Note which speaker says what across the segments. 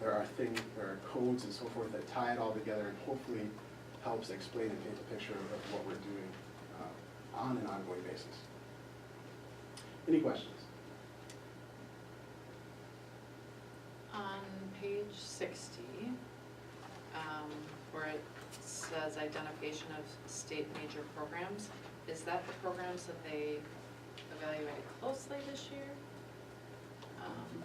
Speaker 1: there are things, there are codes and so forth that tie it all together and hopefully helps explain and paint a picture of what we're doing uh, on an ongoing basis. Any questions?
Speaker 2: On page sixty, um, where it says identification of state major programs, is that the programs that they evaluated closely this year? Um,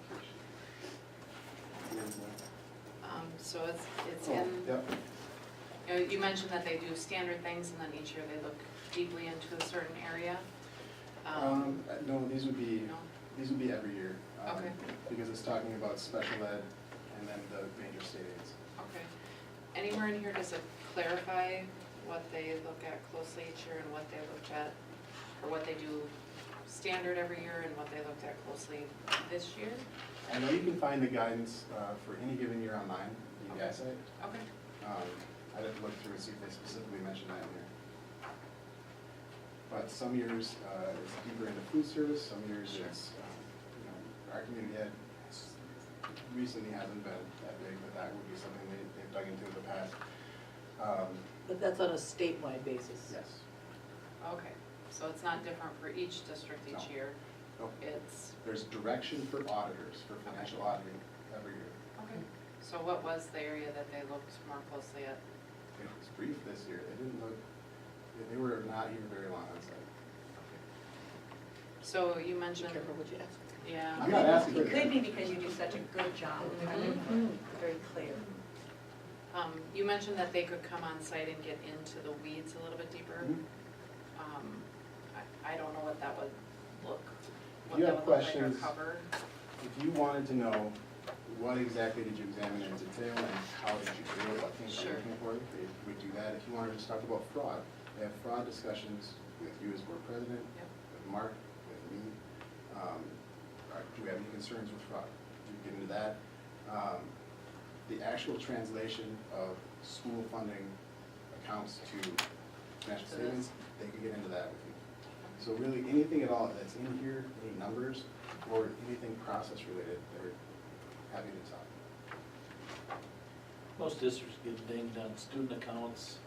Speaker 2: um, so it's, it's
Speaker 1: Oh,
Speaker 2: in,
Speaker 1: Yep,
Speaker 2: you know, you mentioned that they do standard things and then each year they look deeply into a certain area.
Speaker 1: um, uh, no, these would be,
Speaker 2: No,
Speaker 1: these would be every year. um,
Speaker 2: Okay.
Speaker 1: Because it's talking about special ed and then the major state aids.
Speaker 2: okay. Anywhere in here does it clarify what they look at closely each year and what they looked at, or what they do standard every year and what they looked at closely this year?
Speaker 1: I know you can find the guidance uh, for any given year online, the
Speaker 2: Okay.
Speaker 1: EDI site.
Speaker 2: Okay,
Speaker 1: Um, I'd have to look through and see if they specifically mentioned that in here. But some years, uh, it's deeper into food service, some years it's, um, you know, our community had, recently hasn't been that big, but that would be something they, they've dug into in the past. Um,
Speaker 3: But that's on a statewide basis.
Speaker 1: yes,
Speaker 2: okay, so it's not different for each district each
Speaker 1: No.
Speaker 2: year?
Speaker 1: No.
Speaker 2: It's,
Speaker 1: oh, there's direction for auditors, for financial auditing every year.
Speaker 2: okay, so what was the area that they looked more closely at?
Speaker 1: It was brief this year, they didn't look, they- they were not even very long on site.
Speaker 2: So you
Speaker 3: Be
Speaker 2: mentioned,
Speaker 3: careful what you ask.
Speaker 2: yeah.
Speaker 1: I'm not asking for
Speaker 4: It could be
Speaker 1: that.
Speaker 4: because you do such a good job, I mean, very clear.
Speaker 2: Um, you mentioned that they could come on site and get into the weeds a little bit deeper.
Speaker 1: Mhm.
Speaker 2: Um, I, I don't know what that would look, what
Speaker 1: You
Speaker 2: that
Speaker 1: have
Speaker 2: would look like or
Speaker 1: questions?
Speaker 2: cover.
Speaker 1: If you wanted to know what exactly did you examine in detail and how did you do it, what things are
Speaker 2: Sure.
Speaker 1: you looking for, they would do that. If you wanted to just talk about fraud, they have fraud discussions with you as board president,
Speaker 2: Yep.
Speaker 1: with Mark, with me. Um, are- Do we have any concerns with fraud? You get into that. Um, The actual translation of school funding accounts to financial
Speaker 2: To this.
Speaker 1: statements, they could get into that with you. So really, anything at all that's in here, any numbers, or anything process related, they're happy to talk.
Speaker 5: Most districts get dinged on student accounts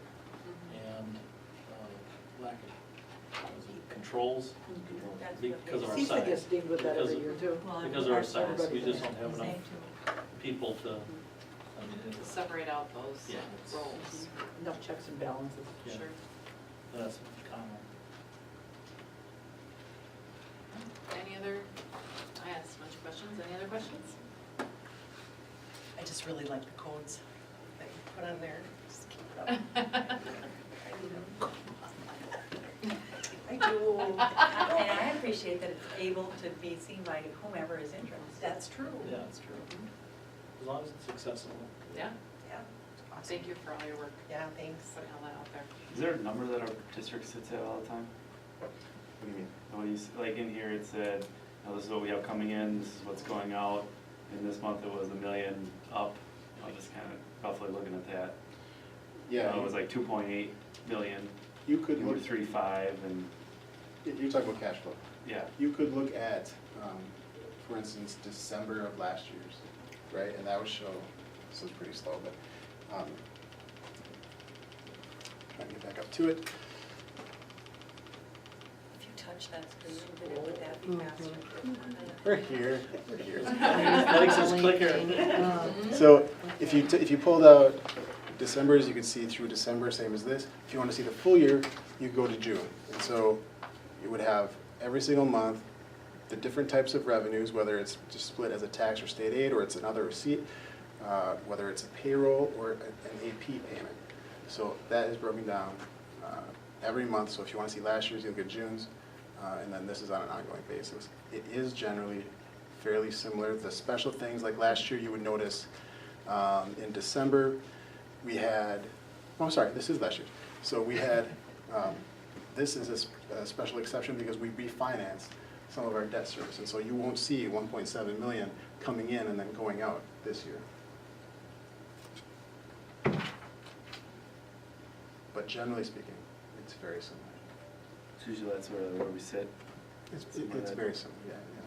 Speaker 5: and uh, lack of what is it, controls
Speaker 4: That's what
Speaker 5: because of
Speaker 4: they-
Speaker 5: our
Speaker 3: Seems like it's
Speaker 5: size.
Speaker 3: dealing with that
Speaker 5: Because
Speaker 3: every
Speaker 5: of-
Speaker 3: year too.
Speaker 4: Well,
Speaker 5: Because of our size,
Speaker 4: everybody
Speaker 5: we
Speaker 4: does.
Speaker 5: just don't have enough
Speaker 4: Same too.
Speaker 5: people to, I mean,
Speaker 2: To
Speaker 3: Mm-hmm.
Speaker 5: it's-
Speaker 2: Mm-hmm. separate out those
Speaker 5: Yeah, it's-
Speaker 2: roles,
Speaker 3: Enough checks and balances.
Speaker 5: Yeah.
Speaker 2: sure.
Speaker 5: that's common.
Speaker 2: Any other, I asked a bunch of questions, any other questions?
Speaker 6: I just really like the codes that you put on there, just keep it up. I need 'em. I do,
Speaker 4: And I appreciate that it's able to be seen by whomever is interested.
Speaker 6: that's true,
Speaker 5: Yeah.
Speaker 6: that's true.
Speaker 5: As long as it's accessible.
Speaker 2: Yeah,
Speaker 6: Yeah, awesome.
Speaker 2: thank you for all your work,
Speaker 6: Yeah, thanks.
Speaker 2: putting all that out there.
Speaker 7: Is there a number that our district sits at all the time?
Speaker 1: What do you mean?
Speaker 7: What do you, s- like in here, it said, you know, this is what we have coming in, this is what's going out, and this month it was a million up. I'm just kind of roughly looking at that. You know,
Speaker 1: Yeah,
Speaker 7: It was like two point eight million,
Speaker 1: you could
Speaker 7: and we're
Speaker 1: look,
Speaker 7: three five, and,
Speaker 1: you're talking about cash flow.
Speaker 7: yeah.
Speaker 1: You could look at, um, for instance, December of last year's, right, and that would show, this is pretty slow, but, um, let me get back up to it.
Speaker 4: If you touch that screen, then it would that be faster? Uh,
Speaker 1: We're here, we're here.
Speaker 5: Likes his clicker.
Speaker 2: Um,
Speaker 1: So if you, t- if you pulled out December's, you can see through December, same as this. If you want to see the full year, you go to June. And so you would have every single month, the different types of revenues, whether it's just split as a tax or state aid, or it's another receipt, uh, whether it's a payroll or a- an AP payment. So that is broken down uh, every month. So if you want to see last year's, you'll get June's, uh, and then this is on an ongoing basis. It is generally fairly similar. The special things, like last year, you would notice um, in December, we had, oh, I'm sorry, this is last year. So we had, um, this is a s- a special exception because we refinanced some of our debt service. And so you won't see 1.7 million coming in and then going out this year. But generally speaking, it's very similar.
Speaker 7: Usually that's where, where we sit.
Speaker 1: It's,
Speaker 7: Similar
Speaker 1: it's
Speaker 7: to-
Speaker 1: very similar, yeah, yeah.